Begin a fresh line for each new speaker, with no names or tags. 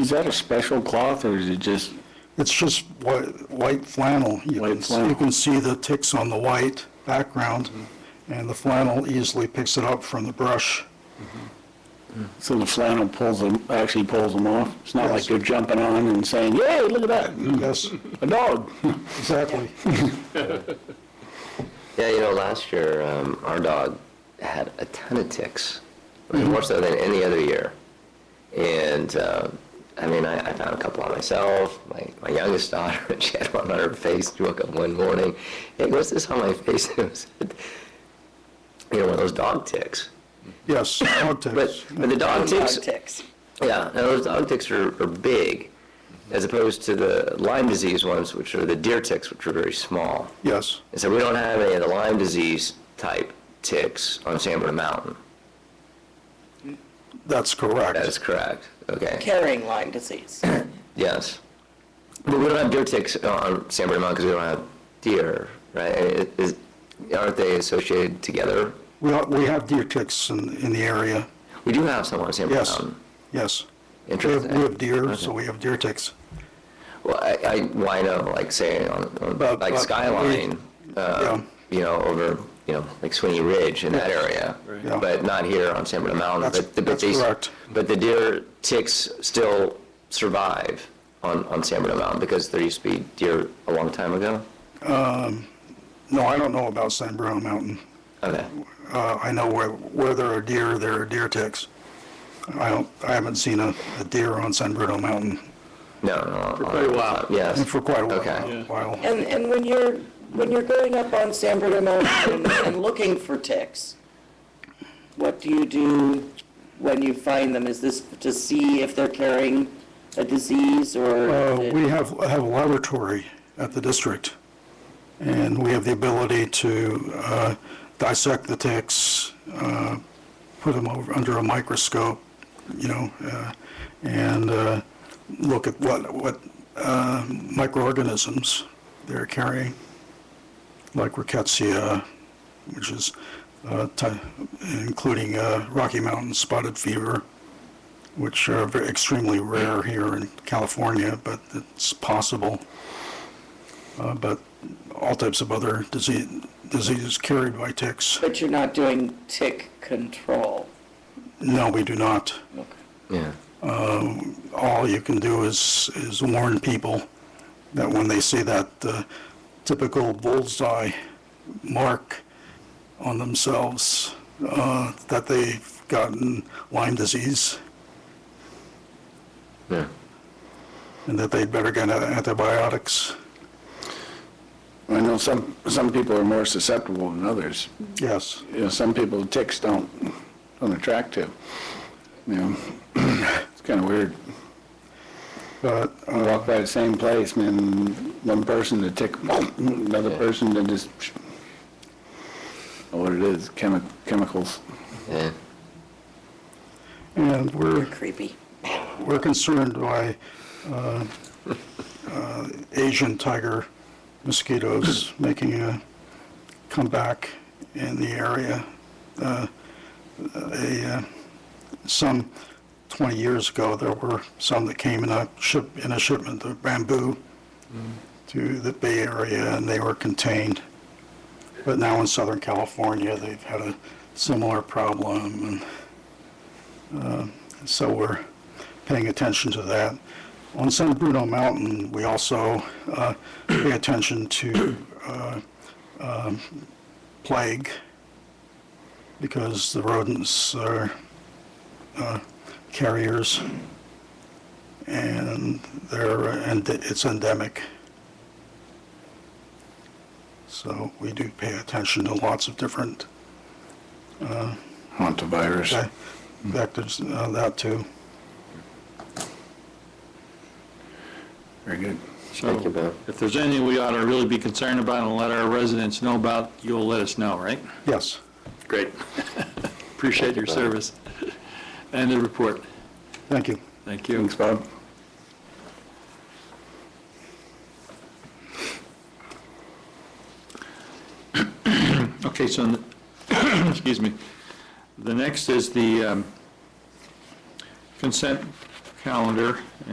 Is that a special cloth or is it just,
It's just white, white flannel. You
White
can, s-
flannel.
you can see the ticks on the white background,
Mm-hmm.
and the flannel easily picks it up from the brush.
so the flannel pulls them, actually pulls them off? It's not like
Yes.
they're jumping on and saying, yay, look at that, mm,
Yes,
a dog.
exactly.
Yeah, you know, last year, um, our dog had a ton of ticks, I mean, more so than any other year. And, uh, I mean, I, I found a couple on myself, my, my youngest daughter, she had one on her face, she woke up one morning, hey, what's this on my face? And it was, you know, one of those dog ticks.
Yes, dog
But,
ticks.
but the dog ticks,
Ticks.
yeah, and those dog ticks are, are big, as opposed to the Lyme disease ones, which are the deer ticks, which are very small.
Yes,
And so we don't have any of the Lyme disease type ticks on San Bruno Mountain.
that's correct.
That is correct. Okay.
Carrying Lyme disease.
Yes. But we don't have deer ticks on San Bruno Mountain because we don't have deer, right? It- it- aren't they associated together?
We, ha- we have deer ticks in, in the area.
We do have some on San Bruno
Yes,
Mountain.
yes. We have,
Um, Interesting.
we have deer, so we have deer ticks.
Well, I, I, well, I know, like say, on, on
But-
like
but we-
Skyline, uh, you know, over, you know, like Sweeney Ridge in that area,
Yeah.
but not here on San Bruno Mountain.
That's-
but the- but
that's
these-
correct.
But the deer ticks still survive on, on San Bruno Mountain because there used to be deer a long time ago.
No, I don't know about San Bruno Mountain.
Okay,
Uh, I know where, where there are deer, there are deer ticks. I don't, I haven't seen a, a deer on San Bruno Mountain
no, no. For
quite a while.
Yes.
for quite a
Okay.
while- while.
And, and when you're, when you're going up on San Bruno Mountain and looking for ticks, what do you do when you find them? Is this to see if they're carrying a disease
Uh,
or?
We have, have a laboratory at the district, and we have the ability to uh, dissect the ticks, uh, put them over, under a microscope, you know, uh, and uh, look at what, what uh, microorganisms they're carrying, like rickettsia, which is, uh, ty- including uh, Rocky Mountain spotted fever which are ve- extremely rare here in California, but it's possible. Uh, But all types of other disease, diseases carried by ticks,
But you're not doing tick control.
no, we do not.
Yeah.
All you can do is, is warn people that when they see that uh, typical bullseye mark on themselves, uh, that they've gotten Lyme disease
Yeah.
and that they'd better get antibiotics.
I know some, some people are more susceptible than others.
Yes.
You know, some people ticks don't, don't attract to. You know, it's kind of weird.
But
I walk by the same place, man, one person to tick, another person to just, know what it is, chemi- chemicals.
Yeah.
And we're,
Creepy.
we're concerned by uh, uh, Asian tiger mosquitoes making a comeback in the area. Uh, a, uh, Some 20 years ago, there were some that came in a ship, in a shipment of bamboo to the Bay Area, and they were contained. But now in Southern California, they've had a similar problem, and so we're paying attention to that. On San Bruno Mountain, we also uh, pay attention to uh, um, plague because the rodents are uh, carriers and they're, and it's endemic. So we do pay attention to lots of different
Hantavirus.
ve- vectors, uh, that too.
Very good.
Thank you, Bill.
So if there's anything we ought to really be concerned about and let our residents know about, you'll let us know, right?
Yes.
Great. Appreciate your service and the report.
Thank you.
Thank you.
Thanks, Bob.
Okay, so, n- excuse me. The next is the um, consent calendar,